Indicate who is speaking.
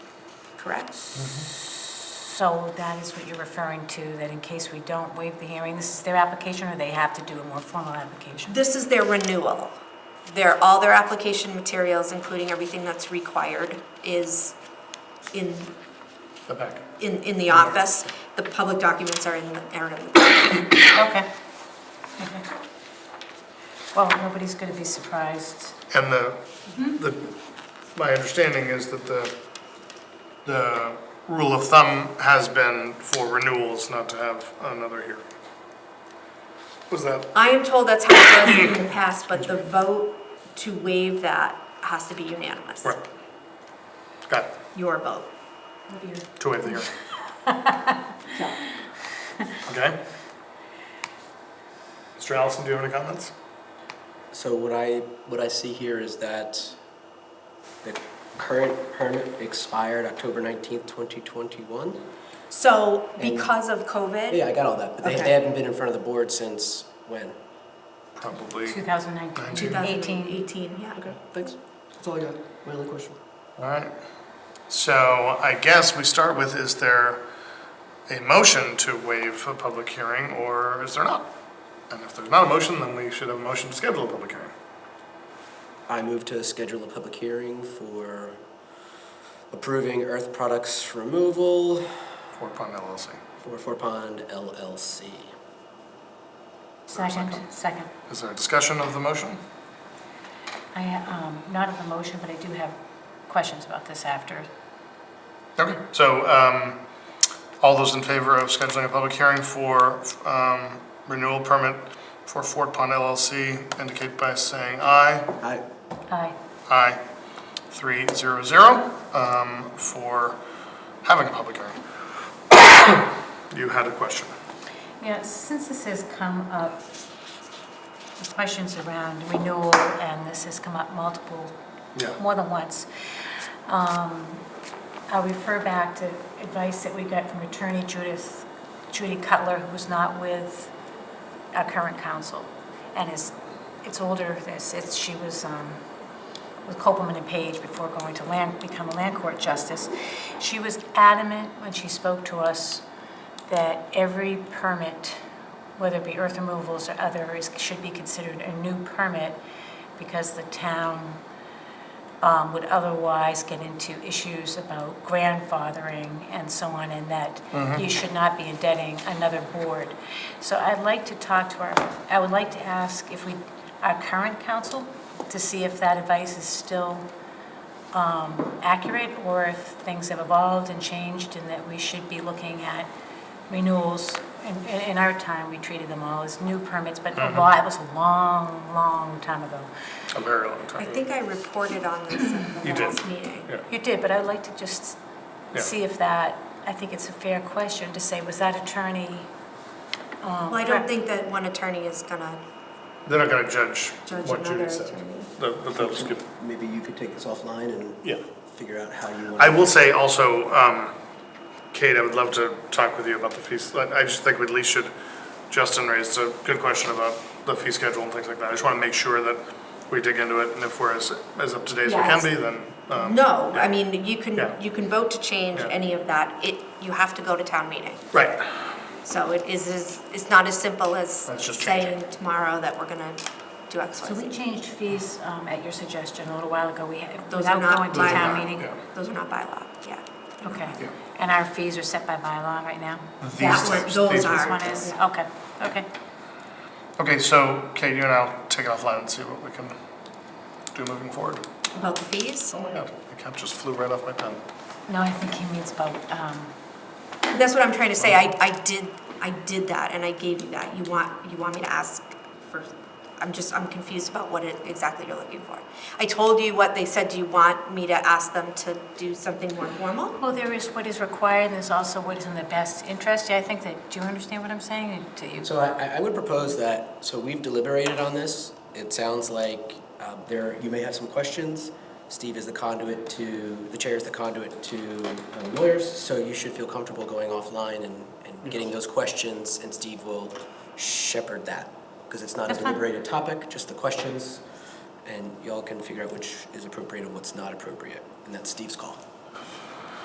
Speaker 1: correct?
Speaker 2: So that is what you're referring to, that in case we don't waive the hearing, this is their application, or they have to do a more formal application?
Speaker 1: This is their renewal. Their, all their application materials, including everything that's required, is in,
Speaker 3: The packet.
Speaker 1: in, in the office. The public documents are in, the- are in the
Speaker 2: Okay. Okay. Well, nobody's going to be surprised.
Speaker 3: And the, the, my understanding is that the, the rule of thumb has been for renewals not to have another hearing. Was that,
Speaker 1: I am told that's how it was in the past, but the vote to waive that has to be unanimous.
Speaker 3: right? Got it,
Speaker 1: Your vote.
Speaker 3: to waive the hearing. Okay? Mr. Allison, do you have any comments?
Speaker 4: So what I, what I see here is that the current permit expired October 19th, 2021?
Speaker 1: So because of COVID,
Speaker 4: Yeah, I got all that, but they,
Speaker 1: Okay.
Speaker 4: they haven't been in front of the board since when?
Speaker 3: Probably.
Speaker 2: 2019,
Speaker 1: 2018,
Speaker 2: 18.
Speaker 1: yeah.
Speaker 4: thanks. That's all I got. My only question.
Speaker 3: All right. So I guess we start with, is there a motion to waive a public hearing or is there not? And if there's not a motion, then we should have a motion to schedule a public hearing.
Speaker 4: I move to schedule a public hearing for approving earth products removal
Speaker 3: for Pond LLC.
Speaker 4: for Four Pond LLC.
Speaker 2: Second, second.
Speaker 3: Is there a discussion of the motion?
Speaker 2: I, um, not of the motion, but I do have questions about this after.
Speaker 3: Okay, so um, all those in favor of scheduling a public hearing for um, renewal permit for Fort Pond LLC indicate by saying aye.
Speaker 4: I,
Speaker 2: Aye.
Speaker 3: Aye, three zero zero, um, for having a public hearing. You had a question.
Speaker 2: Yeah, since this has come up, the questions around renewal, and this has come up multiple
Speaker 3: Yeah.
Speaker 2: more than once. Um, I'll refer back to advice that we got from attorney Judith, Judy Cutler, who was not with our current counsel, and is, it's older, this, it's, she was um, with Copeland and Page before going to land, become a land court justice. She was adamant when she spoke to us that every permit, whether it be earth removals or other, is, should be considered a new permit because the town um, would otherwise get into issues about grandfathering and so on, and that you should not be indebting another board. So I'd like to talk to our, I would like to ask if we, our current council, to see if that advice is still um, accurate, or if things have evolved and changed, and that we should be looking at renewals. In- in- In our time, we treated them all as new permits, but a lot, it was a long, long time ago.
Speaker 3: A very long
Speaker 1: I
Speaker 3: time.
Speaker 1: think I reported on this at the
Speaker 3: You did.
Speaker 1: last meeting.
Speaker 3: Yeah.
Speaker 2: You did, but I'd like to just
Speaker 3: Yeah.
Speaker 2: see if that, I think it's a fair question to say, was that attorney?
Speaker 1: Well, I don't think that one attorney is gonna
Speaker 3: They're not gonna judge
Speaker 1: judge
Speaker 3: what
Speaker 1: another
Speaker 3: Judy said.
Speaker 1: attorney.
Speaker 3: That- But that was good.
Speaker 4: maybe you could take this offline and
Speaker 3: Yeah.
Speaker 4: figure out how you want.
Speaker 3: I will say also, um, Kate, I would love to talk with you about the fees. Like, I just think we at least should, Justin raised a good question about the fee schedule and things like that. I just wanna make sure that we dig into it and if we're as, as up to date as we can
Speaker 1: Yes.
Speaker 3: be, then, um,
Speaker 1: No, I mean, you
Speaker 3: Yeah.
Speaker 1: can, you can vote to change
Speaker 3: Yeah.
Speaker 1: any of that. It, you have to go to town meeting.
Speaker 3: right.
Speaker 1: So it is, is- it's not as simple as
Speaker 3: Let's just change
Speaker 1: saying tomorrow that we're gonna do X,
Speaker 2: So
Speaker 1: Y,
Speaker 2: we
Speaker 1: Z.
Speaker 2: changed fees um, at your suggestion a little while ago, we,
Speaker 1: Those are
Speaker 2: without
Speaker 1: not
Speaker 2: going to
Speaker 1: by
Speaker 2: town
Speaker 1: law.
Speaker 2: meeting.
Speaker 3: Yeah.
Speaker 1: Those are not by law, yeah.
Speaker 2: Okay,
Speaker 3: Yeah.
Speaker 2: and our fees are set by bylaw right now?
Speaker 1: That one-
Speaker 3: types-
Speaker 1: those
Speaker 3: these
Speaker 1: are.
Speaker 2: This one is, okay, okay.
Speaker 3: Okay, so Kate, you and I'll take it offline and see what we can do moving forward.
Speaker 1: About the fees?
Speaker 3: Oh my god, the cap just flew right off my pen.
Speaker 2: No, I think he means about, um,
Speaker 1: That's what I'm trying to say. I, I did, I did that and I gave you that. You want, you want me to ask for, I'm just, I'm confused about what it, exactly you're looking for. I told you what they said. Do you want me to ask them to do something more formal?
Speaker 2: well, there is what is required, and there's also what is in the best interest. Yeah, I think that, do you understand what I'm saying? Do you?
Speaker 4: So I, I- I would propose that, so we've deliberated on this. It sounds like um, there, you may have some questions. Steve is the conduit to, the chair is the conduit to um, lawyers, so you should feel comfortable going offline and,
Speaker 2: Mm-hmm.
Speaker 4: and getting those questions, and Steve will shepherd that. Because it's not a
Speaker 2: That's fine.
Speaker 4: deliberated topic, just the questions, and y'all can figure out which is appropriate and what's not appropriate, and that's Steve's call.